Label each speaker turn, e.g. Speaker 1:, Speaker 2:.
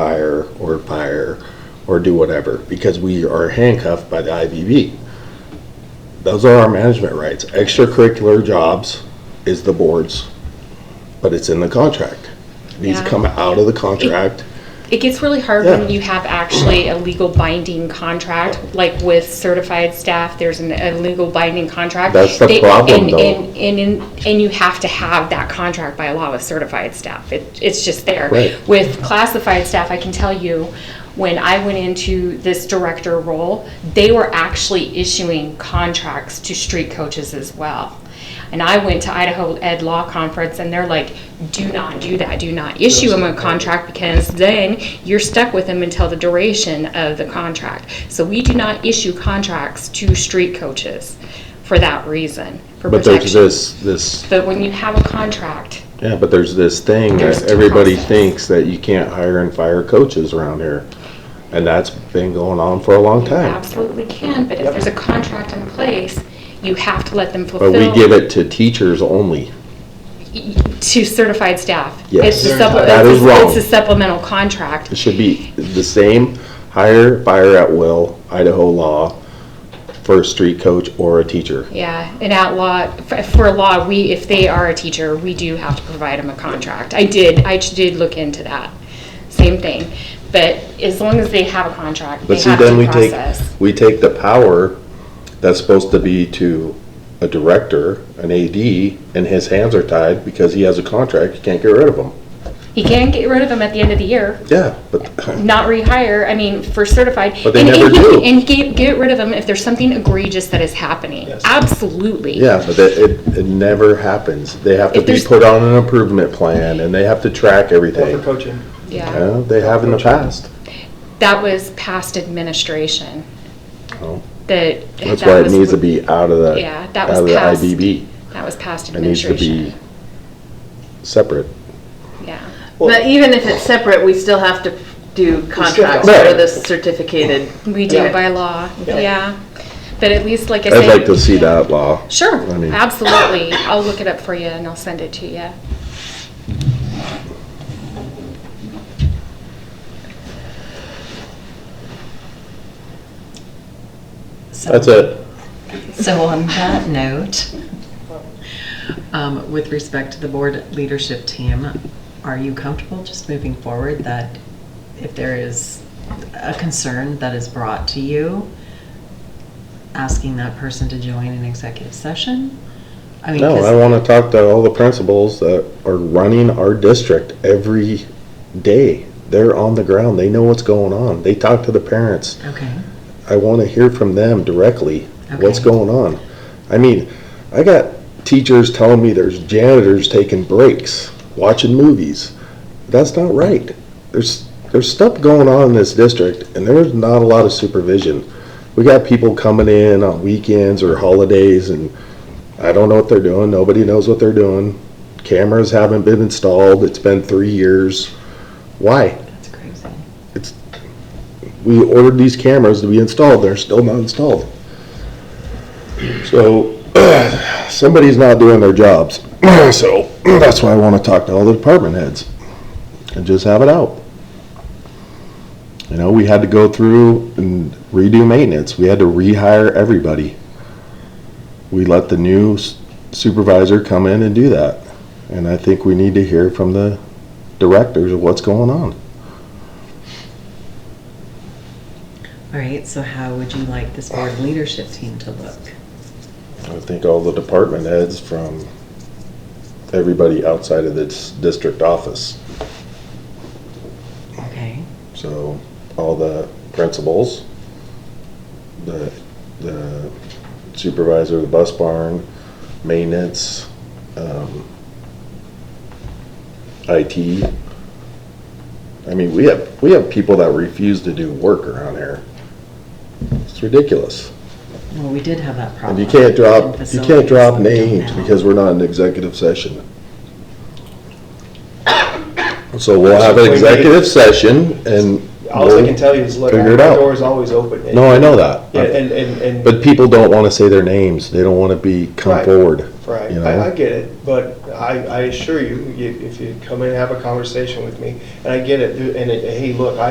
Speaker 1: hire or fire or do whatever because we are handcuffed by the IVB. Those are our management rights. Extracurricular jobs is the board's, but it's in the contract. These
Speaker 2: Yeah.
Speaker 1: come out of the contract.
Speaker 2: It gets really hard
Speaker 1: Yeah.
Speaker 2: when you have actually a legal binding contract, like with certified staff, there's an, a legal binding contract.
Speaker 1: That's the
Speaker 2: They-
Speaker 1: problem,
Speaker 2: and-
Speaker 1: though.
Speaker 2: And, and, and, and you have to have that contract by law with certified staff. It, it's just there.
Speaker 1: Right.
Speaker 2: With classified staff, I can tell you, when I went into this director role, they were actually issuing contracts to street coaches as well. And I went to Idaho Ed Law Conference and they're like, do not do that, do not issue them a contract because then you're stuck with them until the duration of the contract. So we do not issue contracts to street coaches for that reason, for
Speaker 1: But there's
Speaker 2: protection.
Speaker 1: this, this,
Speaker 2: But when you have a contract,
Speaker 1: yeah, but there's this thing
Speaker 2: There's
Speaker 1: that
Speaker 2: two
Speaker 1: everybody
Speaker 2: processes.
Speaker 1: thinks that you can't hire and fire coaches around here. And that's been going on for a long
Speaker 2: you
Speaker 1: time.
Speaker 2: absolutely can, but if there's a contract in place, you have to let them
Speaker 1: But
Speaker 2: fulfill.
Speaker 1: we give it to teachers only.
Speaker 2: To certified staff.
Speaker 1: Yes.
Speaker 2: It's a supple-
Speaker 1: That is wrong.
Speaker 2: It's a supplemental contract.
Speaker 1: It should be the same hire, fire at will, Idaho law, for a street coach or a teacher.
Speaker 2: Yeah, and at law, for- for law, we, if they are a teacher, we do have to provide them a contract. I did, I did look into that, same thing. But as long as they have a contract, they
Speaker 1: But see,
Speaker 2: have
Speaker 1: then we
Speaker 2: to
Speaker 1: take,
Speaker 2: process.
Speaker 1: we take the power that's supposed to be to a director, an AD, and his hands are tied because he has a contract, you can't get rid of him.
Speaker 2: He can get rid of them at the end of the year,
Speaker 1: Yeah, but,
Speaker 2: not rehire, I mean, for certified.
Speaker 1: But they
Speaker 2: And-
Speaker 1: never
Speaker 2: and he-
Speaker 1: do.
Speaker 2: And he can get rid of them if there's something egregious that is happening. Absolutely.
Speaker 1: yeah, but that- it, it never happens. They have to
Speaker 2: If
Speaker 1: be
Speaker 2: there's-
Speaker 1: put on an improvement plan and they have to track
Speaker 3: Or
Speaker 1: everything.
Speaker 3: for coaching.
Speaker 2: Yeah,
Speaker 1: Yeah, they have in the past.
Speaker 2: that was past administration.
Speaker 1: Oh.
Speaker 2: That.
Speaker 1: That's
Speaker 2: that
Speaker 1: why it
Speaker 2: was
Speaker 1: needs to
Speaker 2: wh-
Speaker 1: be out of the,
Speaker 2: Yeah, that
Speaker 1: out
Speaker 2: was
Speaker 1: of the
Speaker 2: past.
Speaker 1: IBB.
Speaker 2: That was past
Speaker 1: It needs to be
Speaker 2: administration.
Speaker 1: separate.
Speaker 2: Yeah.
Speaker 4: But even if it's separate, we still have to do contracts
Speaker 1: have to.
Speaker 4: for the certificated.
Speaker 2: We do
Speaker 4: Yeah.
Speaker 2: by law,
Speaker 3: Yeah.
Speaker 2: yeah. But at least, like I said.
Speaker 1: I'd like to see that law.
Speaker 2: Sure,
Speaker 1: I mean-
Speaker 2: absolutely. I'll look it up for you and I'll send it to you.
Speaker 5: So-
Speaker 1: That's it.
Speaker 5: So on that note, um, with respect to the board leadership team, are you comfortable just moving forward that if there is a concern that is brought to you, asking that person to join an executive session? I mean,
Speaker 1: No, I
Speaker 5: 'cause-
Speaker 1: want to talk to all the principals that are running our district every day. They're on the ground. They know what's going on. They talk to the parents.
Speaker 5: Okay,
Speaker 1: I want to hear from them directly. What's
Speaker 5: Okay.
Speaker 1: going on? I mean, I got teachers telling me there's janitors taking breaks, watching movies. That's not right. There's there's stuff going on in this district, and there's not a lot of supervision. We got people coming in on weekends or holidays, and I don't know what they're doing. Nobody knows what they're doing. Cameras haven't been installed. It's been three years. Why?
Speaker 5: that's crazy.
Speaker 1: we ordered these cameras to be installed, they're still not installed. So, somebody's not doing their jobs, so that's why I wanna talk to all the department heads and just have it out. You know, we had to go through and redo maintenance, we had to rehire everybody. We let the new s- supervisor come in and do that, and I think we need to hear from the directors of what's going on.
Speaker 5: All right, so how would you like this board leadership team to look?
Speaker 1: I think all the department heads from everybody outside of this district office.
Speaker 5: Okay,
Speaker 1: So all the principals, the, the supervisor of the bus barn, maintenance, um, IT. I mean, we have, we have people that refuse to do work around here. It's ridiculous.
Speaker 5: well, we did have that problem.
Speaker 1: And you can't drop,
Speaker 5: in
Speaker 1: you can't drop
Speaker 5: facilities that we don't
Speaker 1: names
Speaker 5: now.
Speaker 1: because we're not in executive session. So we'll have an executive session and
Speaker 3: All I can tell you is, look,
Speaker 1: Figure
Speaker 3: our
Speaker 1: it out.
Speaker 3: door is always open. And-
Speaker 1: No, I know that.
Speaker 3: Yeah, and, and, and.
Speaker 1: But people don't want to say their names. They don't want to be, come
Speaker 3: Right.
Speaker 1: forward.
Speaker 3: Right,
Speaker 1: you know?
Speaker 3: I, I get it, but I, I assure you, you- if you come in and have a conversation with me, and I get it, and, it- hey, look, I